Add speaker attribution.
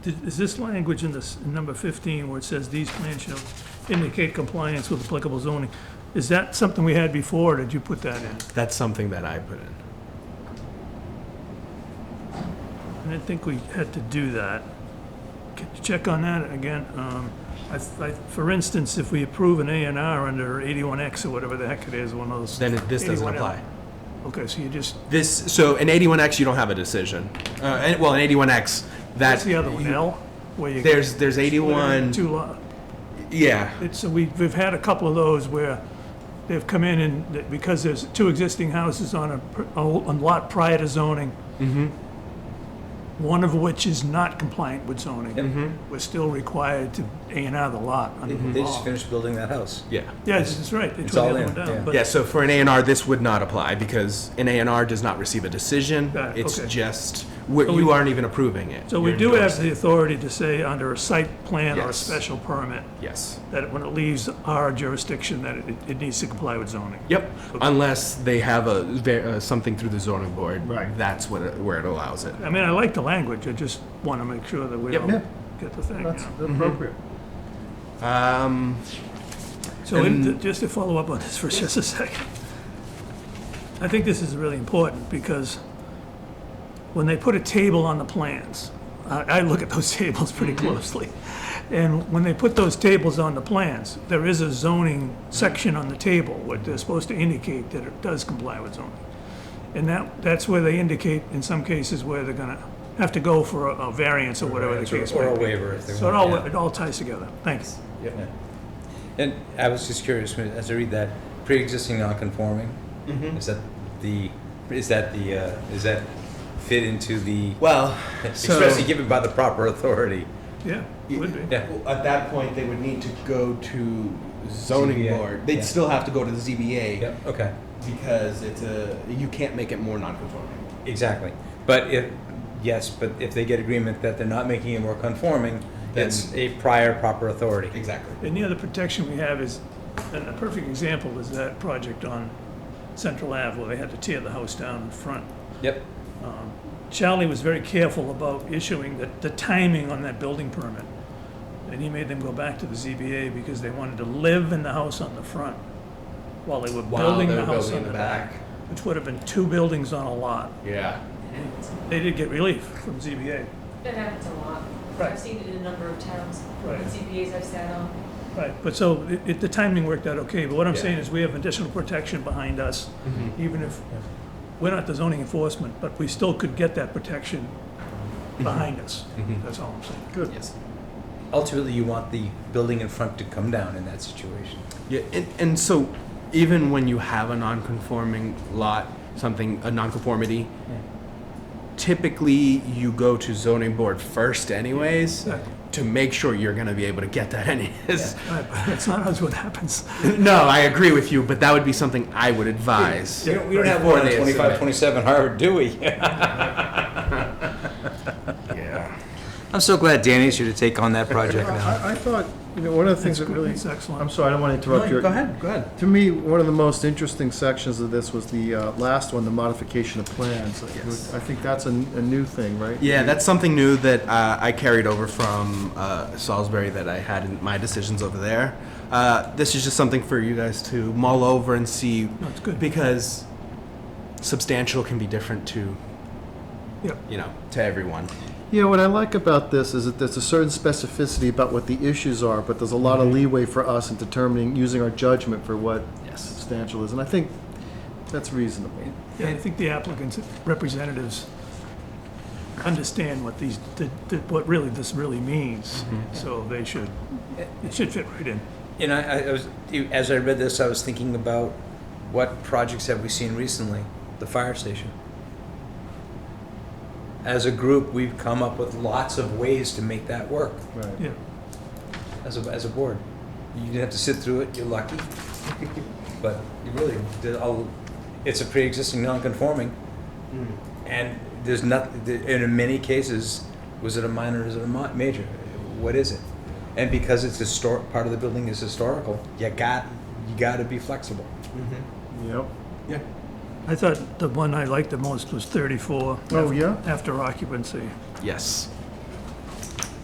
Speaker 1: Is this language in this, in number 15, where it says these plans shall indicate compliance with applicable zoning, is that something we had before, or did you put that in?
Speaker 2: That's something that I put in.
Speaker 1: I didn't think we had to do that. Could you check on that again? Um, I, I, for instance, if we approve an A and R under 81X or whatever the heck it is, one of those.
Speaker 2: Then it- this doesn't
Speaker 1: 81L.
Speaker 2: apply.
Speaker 1: Okay, so you just,
Speaker 2: This, so in 81X, you don't have a decision. Uh, and- well, in 81X,
Speaker 1: that's
Speaker 2: that's
Speaker 1: the other one, L, where you.
Speaker 2: There's, there's 81,
Speaker 1: Two lot.
Speaker 2: yeah.
Speaker 1: It's, so we've, we've had a couple of those where they've come in and, that- because there's two existing houses on a, pr- a a lot prior to zoning.
Speaker 2: Mm-hmm.
Speaker 1: One of which is not compliant with zoning.
Speaker 2: Mm-hmm.
Speaker 1: We're still required to A and R the lot under the
Speaker 3: They just
Speaker 1: law.
Speaker 3: finished building that house.
Speaker 2: Yeah.
Speaker 1: Yes, that's right, they
Speaker 3: It's
Speaker 1: tore
Speaker 3: all
Speaker 1: the other
Speaker 3: in,
Speaker 1: one down,
Speaker 3: yeah.
Speaker 1: but
Speaker 2: Yeah, so for an A&R, this would not apply because an A&R does not receive a decision.
Speaker 1: Got it,
Speaker 2: It's
Speaker 1: okay.
Speaker 2: just, we-
Speaker 1: So we-
Speaker 2: you aren't even approving it.
Speaker 1: So we
Speaker 2: You're
Speaker 1: do have
Speaker 2: endorsing.
Speaker 1: the authority to say under a site plan or a
Speaker 2: Yes.
Speaker 1: special permit,
Speaker 2: Yes.
Speaker 1: that when it leaves our jurisdiction, that it, it needs to comply with zoning.
Speaker 2: Yep, unless they have a, ve- uh, something through the zoning board.
Speaker 1: Right.
Speaker 2: That's what, it- where it allows it.
Speaker 1: I mean, I like the language, I just want to make sure that we
Speaker 2: Yep.
Speaker 1: don't
Speaker 2: Yeah.
Speaker 1: get the thing, you know.
Speaker 3: appropriate.
Speaker 2: Um,
Speaker 1: So in- just to follow up on this for just a second, I think this is really important because when they put a table on the plans, I, I look at those tables pretty
Speaker 3: Mm-hmm.
Speaker 1: closely. And when they put those tables on the plans, there is a zoning section on the table where they're supposed to indicate that it does comply with zoning. And that, that's where they indicate in some cases where they're gonna have to go for a- a variance or whatever the case
Speaker 3: Or
Speaker 1: may
Speaker 3: a
Speaker 1: be.
Speaker 3: waiver if they
Speaker 1: So it
Speaker 3: want,
Speaker 1: all,
Speaker 3: yeah.
Speaker 1: it all ties together. Thanks.
Speaker 3: Yeah. And I was just curious, when- as I read that, pre-existing non-conforming,
Speaker 1: Mm-hmm.
Speaker 3: is that the, is that the, uh, is that fit into the,
Speaker 2: well, so-
Speaker 3: especially given by the proper authority?
Speaker 1: Yeah, would be.
Speaker 3: Yeah.
Speaker 2: Well, At that point, they would need to go to zoning
Speaker 3: ZBA,
Speaker 2: board. They'd
Speaker 3: yeah.
Speaker 2: still have to go to the ZBA
Speaker 3: Yep, okay,
Speaker 2: because it's a you can't make it more non-conforming.
Speaker 3: exactly. But if, yes, but if they get agreement that they're not making it more conforming, that's a prior proper authority.
Speaker 2: Exactly.
Speaker 1: And the other protection we have is, and a perfect example is that project on Central Ave where they had to tear the house down in front.
Speaker 3: Yep,
Speaker 1: Charlie was very careful about issuing the, the timing on that building permit. And he made them go back to the ZBA because they wanted to live in the house on the front while they were
Speaker 2: While
Speaker 1: building
Speaker 2: they
Speaker 1: the
Speaker 2: were
Speaker 1: house
Speaker 2: building
Speaker 1: on the
Speaker 2: the
Speaker 1: back.
Speaker 2: back.
Speaker 1: Which would have been two buildings on a lot.
Speaker 2: Yeah.
Speaker 1: They did get relief from ZBA.
Speaker 4: That happens a lot.
Speaker 1: Right.
Speaker 4: I've seen it in a number of towns,
Speaker 1: Right.
Speaker 4: CPAs I've sat on.
Speaker 1: Right, but so it- it, the timing worked out okay, but what I'm
Speaker 2: Yeah.
Speaker 1: saying is we have additional protection behind us,
Speaker 2: Mm-hmm.
Speaker 1: even if, we're not the zoning enforcement, but we still could get that protection
Speaker 5: Mm-hmm.
Speaker 1: behind us.
Speaker 2: Mm-hmm.
Speaker 1: That's all I'm saying. Good.
Speaker 2: Yes.
Speaker 3: ultimately you want the building in front to come down in that situation.
Speaker 2: Yeah, and, and so even when you have a non-conforming lot, something a non-conformity, typically you go to zoning board first, anyways,
Speaker 1: Exactly.
Speaker 2: to make sure you're going to be able to get that anyways.
Speaker 1: All right, but that's not always what happens.
Speaker 2: no, I agree with you, but that would be something I would advise.
Speaker 3: We don't, we don't have
Speaker 2: before
Speaker 3: one on
Speaker 2: they submit.
Speaker 3: 25, 27 Harvard, do we?
Speaker 2: Yeah.
Speaker 3: I'm so glad Danny's here to take on that project now.
Speaker 5: I, I thought, you know, one of the things that really,
Speaker 1: That's excellent.
Speaker 5: I'm sorry, I don't want to interrupt your.
Speaker 3: Go ahead, go ahead.
Speaker 5: To me, one of the most interesting sections of this was the uh, last one, the modification of plans.
Speaker 2: Yes.
Speaker 5: I think that's a, a new thing, right?
Speaker 2: Yeah, that's something new that uh, I carried over from uh, Salisbury that I had in my decisions over there. Uh, this is just something for you guys to mull over and see.
Speaker 1: No, it's good.
Speaker 2: Because substantial can be different to,
Speaker 1: Yep.
Speaker 2: you know, to everyone.
Speaker 5: Yeah, what I like about this is that there's a certain specificity about what the issues are, but there's a lot
Speaker 2: Mm-hmm.
Speaker 5: of leeway for us in determining, using our judgment for what
Speaker 2: Yes.
Speaker 5: substantial is, and I think that's reasonable.
Speaker 1: Yeah, I think the applicants, representatives understand what these, the- the- what really, this really means.
Speaker 5: Mm-hmm.
Speaker 1: So they should, it should fit right in.
Speaker 3: And I, I was, as I read this, I was thinking about what projects have we seen recently? The fire station. As a group, we've come up with lots of ways to make that work
Speaker 5: Right.
Speaker 1: Yeah.
Speaker 3: as a, as a board. You didn't have to sit through it, you're lucky. But you really, did a- it's a pre-existing non-conforming. And there's nothing, and in many cases, was it a minor, is it a mi- major? What is it? And because it's historic, part of the building is historical, you got, you gotta be flexible.
Speaker 5: Yep.
Speaker 2: Yeah.
Speaker 1: I thought the one I liked the most was 34.
Speaker 5: Oh, yeah?
Speaker 1: After occupancy.
Speaker 2: Yes.